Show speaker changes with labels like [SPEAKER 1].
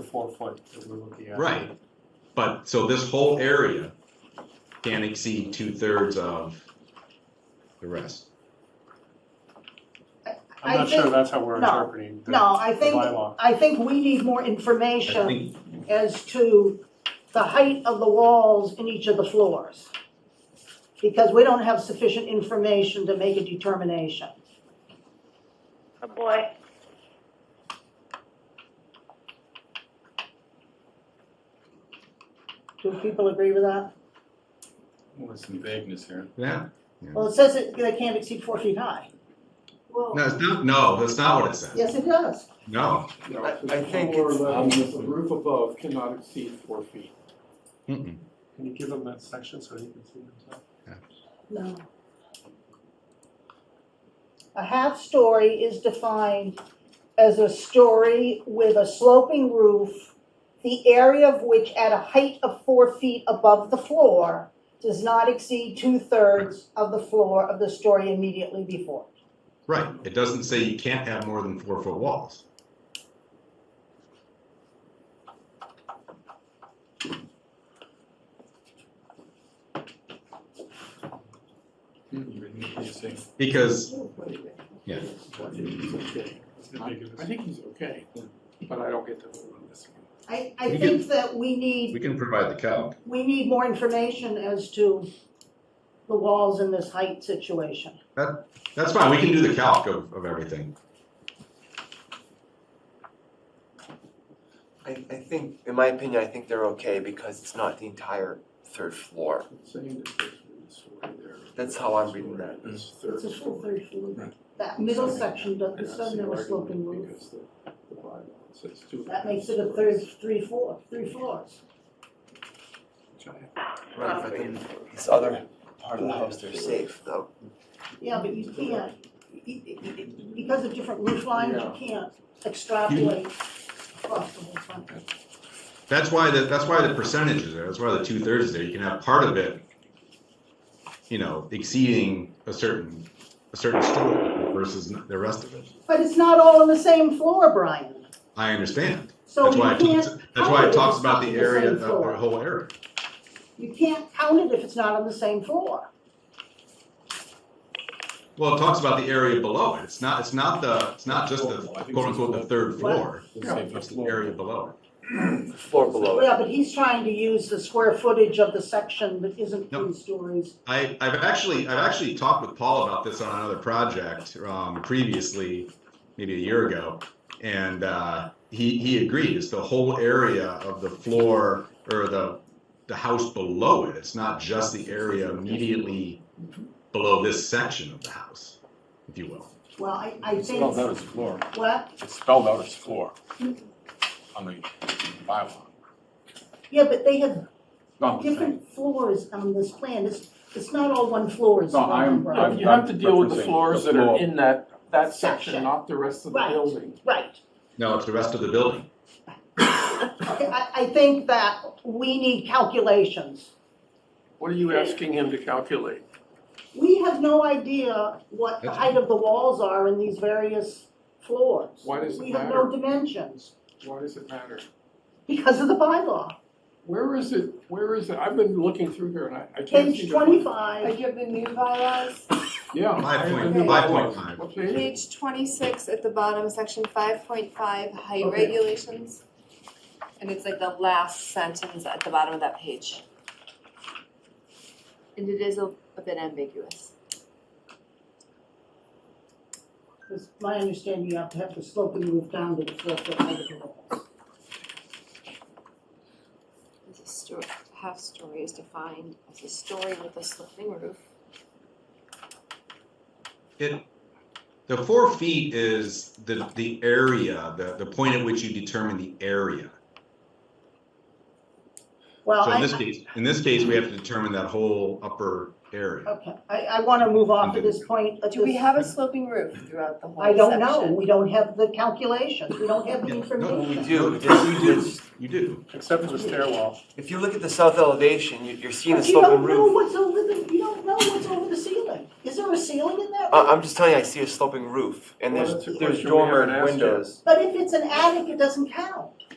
[SPEAKER 1] four foot that we're looking at.
[SPEAKER 2] Right, but, so this whole area can't exceed two-thirds of the rest.
[SPEAKER 1] I'm
[SPEAKER 3] I
[SPEAKER 1] not sure
[SPEAKER 3] think-
[SPEAKER 1] that's how we're
[SPEAKER 3] no,
[SPEAKER 1] interpreting the the
[SPEAKER 3] no, I think-
[SPEAKER 1] bylaw.
[SPEAKER 3] I think we need more
[SPEAKER 2] I
[SPEAKER 3] information
[SPEAKER 2] think,
[SPEAKER 3] as to the height of the walls in each of the floors. Because we don't have sufficient information to make a determination.
[SPEAKER 4] Oh boy.
[SPEAKER 3] Do people agree with that?
[SPEAKER 5] Well, there's some vagueness here.
[SPEAKER 2] yeah,
[SPEAKER 3] Well, it says it, they can't exceed four feet high.
[SPEAKER 4] Well,
[SPEAKER 2] no, it's not, no, that's not what it says,
[SPEAKER 3] Yes, it does.
[SPEAKER 2] no.
[SPEAKER 6] No,
[SPEAKER 7] I-
[SPEAKER 6] it's
[SPEAKER 7] I think
[SPEAKER 6] floor
[SPEAKER 7] it's-
[SPEAKER 6] level,
[SPEAKER 5] Um,
[SPEAKER 6] with the roof above cannot exceed four feet.
[SPEAKER 2] Mm-mm.
[SPEAKER 1] Can you give him that section so he can see himself?
[SPEAKER 3] No. A half story is defined as a story with a sloping roof, the area of which at a height of four feet above the floor does not exceed two-thirds of the floor of the story immediately before.
[SPEAKER 2] Right, it doesn't say you can't have more than four-foot walls. Because, yeah,
[SPEAKER 1] It's ambiguous.
[SPEAKER 6] I think he's okay, but I don't get the vote on this one.
[SPEAKER 3] I, I
[SPEAKER 2] We
[SPEAKER 3] think that we
[SPEAKER 2] we
[SPEAKER 3] need,
[SPEAKER 2] can provide the calc.
[SPEAKER 3] we need more information as to the walls in this height situation.
[SPEAKER 2] That's fine, we can do the calc of, of everything.
[SPEAKER 7] I, I think, in my opinion, I think they're okay because it's not the entire third floor.
[SPEAKER 6] Saying that there's one story there.
[SPEAKER 7] That's how I'm reading that.
[SPEAKER 6] It's third
[SPEAKER 3] It's a full
[SPEAKER 6] story.
[SPEAKER 3] third floor.
[SPEAKER 6] Right.
[SPEAKER 3] That middle
[SPEAKER 6] Sorry.
[SPEAKER 3] section does,
[SPEAKER 6] I don't
[SPEAKER 3] doesn't
[SPEAKER 6] see
[SPEAKER 3] have a sloping
[SPEAKER 6] argument
[SPEAKER 3] roof.
[SPEAKER 6] Because the, the bylaw says two.
[SPEAKER 3] That makes it a third, three, four, three floors.
[SPEAKER 6] stories.
[SPEAKER 7] Right, but then this other part of the house, they're safe though.
[SPEAKER 3] Yeah, but you can't, y- y- y- because of different roof lines,
[SPEAKER 6] Yeah.
[SPEAKER 3] you can't extrapolate across the whole front.
[SPEAKER 2] That's why, the- that's why the percentage is there, that's why the two-thirds is there, you can have part of it, you know, exceeding a certain, a certain story versus the rest of it.
[SPEAKER 3] But it's not all on the same floor, Brian,
[SPEAKER 2] I understand,
[SPEAKER 3] so
[SPEAKER 2] that's
[SPEAKER 3] you
[SPEAKER 2] why, it
[SPEAKER 3] can't,
[SPEAKER 2] talks- that's why it
[SPEAKER 3] count
[SPEAKER 2] talks
[SPEAKER 3] it's
[SPEAKER 2] about
[SPEAKER 3] not
[SPEAKER 2] the
[SPEAKER 3] the
[SPEAKER 2] area,
[SPEAKER 3] same
[SPEAKER 2] the
[SPEAKER 3] floor.
[SPEAKER 2] the whole area.
[SPEAKER 3] you can't count it if it's not on the same floor.
[SPEAKER 2] Well, it talks about the area below it, it's not, it's not the, it's not just the
[SPEAKER 5] Well, I think
[SPEAKER 2] quote-unquote the
[SPEAKER 5] it's-
[SPEAKER 2] third floor,
[SPEAKER 6] Yeah.
[SPEAKER 2] it's the area below it.
[SPEAKER 7] The floor below it.
[SPEAKER 3] Yeah, but he's trying to use the square footage of the section that isn't
[SPEAKER 2] Nope.
[SPEAKER 3] three stories.
[SPEAKER 2] I, I've actually, I've actually talked with Paul about this on another project, um, previously, maybe a year ago. And, uh, he, he agreed, it's the whole area of the floor or the, the house below it. It's not just the area immediately below this section of the house, if you will.
[SPEAKER 3] Well, I, I
[SPEAKER 5] It's spelled out
[SPEAKER 3] think,
[SPEAKER 5] as floor.
[SPEAKER 3] what,
[SPEAKER 5] It's spelled out as floor on the bylaw.
[SPEAKER 3] yeah, but they have
[SPEAKER 5] No, I'm just saying.
[SPEAKER 3] different floors on this plan, it's, it's not all one floor, it's
[SPEAKER 5] No,
[SPEAKER 3] one
[SPEAKER 5] I'm,
[SPEAKER 3] umbrella.
[SPEAKER 6] No,
[SPEAKER 5] I'm.
[SPEAKER 6] You have to deal with
[SPEAKER 5] referencing
[SPEAKER 6] the
[SPEAKER 5] the
[SPEAKER 6] floors that are
[SPEAKER 5] floor.
[SPEAKER 6] in that, that section,
[SPEAKER 3] Section.
[SPEAKER 6] not the rest of the
[SPEAKER 3] Right.
[SPEAKER 6] building.
[SPEAKER 3] Right,
[SPEAKER 2] No, it's the rest of the building.
[SPEAKER 3] okay, I, I think that we need calculations.
[SPEAKER 6] What are you asking him to calculate?
[SPEAKER 3] We have no idea what the height of the walls are in these various floors.
[SPEAKER 6] Why does it
[SPEAKER 3] We have no
[SPEAKER 6] matter?
[SPEAKER 3] dimensions,
[SPEAKER 6] Why does it matter?
[SPEAKER 3] because of the bylaw.
[SPEAKER 6] Where is it, where is it? I've been looking through here and I, I can't see.
[SPEAKER 3] Page twenty-five,
[SPEAKER 4] like you have the new bylaws,
[SPEAKER 6] Yeah.
[SPEAKER 2] Five point-
[SPEAKER 6] Yeah.
[SPEAKER 2] five point five.
[SPEAKER 6] What page?
[SPEAKER 4] page twenty-six at the bottom, section five point five, height
[SPEAKER 6] Okay.
[SPEAKER 4] regulations. And it's like the last sentence at the bottom of that page. And it is a, a bit ambiguous.
[SPEAKER 3] it's my understanding you have to have the sloping roof down to the floor foot height of the walls.
[SPEAKER 4] It's a sto- half story is defined as a story with a sloping roof.
[SPEAKER 2] The four feet is the, the area, the, the point at which you determine the area.
[SPEAKER 3] Well,
[SPEAKER 2] So in
[SPEAKER 3] I,
[SPEAKER 2] this case, in this case, we have to determine that whole upper
[SPEAKER 3] I-
[SPEAKER 2] area.
[SPEAKER 3] okay, I, I wanna move off of this point, but
[SPEAKER 4] Do we
[SPEAKER 3] this-
[SPEAKER 4] have a sloping roof throughout the whole
[SPEAKER 3] I don't
[SPEAKER 4] section?
[SPEAKER 3] know, we don't have the calculations, we don't have the
[SPEAKER 2] Yeah, no,
[SPEAKER 3] information.
[SPEAKER 7] You do, if you, it's-
[SPEAKER 2] You do.
[SPEAKER 1] Except for the stairwell.
[SPEAKER 7] if you look at the south elevation, you, you're seeing a
[SPEAKER 3] But you don't
[SPEAKER 7] sloping
[SPEAKER 3] know
[SPEAKER 7] roof.
[SPEAKER 3] what's over the, you don't know what's over the ceiling. Is there a ceiling in that
[SPEAKER 2] Uh,
[SPEAKER 7] I,
[SPEAKER 3] room?
[SPEAKER 7] I'm just telling you, I see a sloping roof and
[SPEAKER 6] Well,
[SPEAKER 7] there's,
[SPEAKER 6] that's a
[SPEAKER 7] there's
[SPEAKER 6] question we
[SPEAKER 7] dormer
[SPEAKER 6] haven't asked yet.
[SPEAKER 7] windows.
[SPEAKER 3] But if it's an attic, it doesn't count.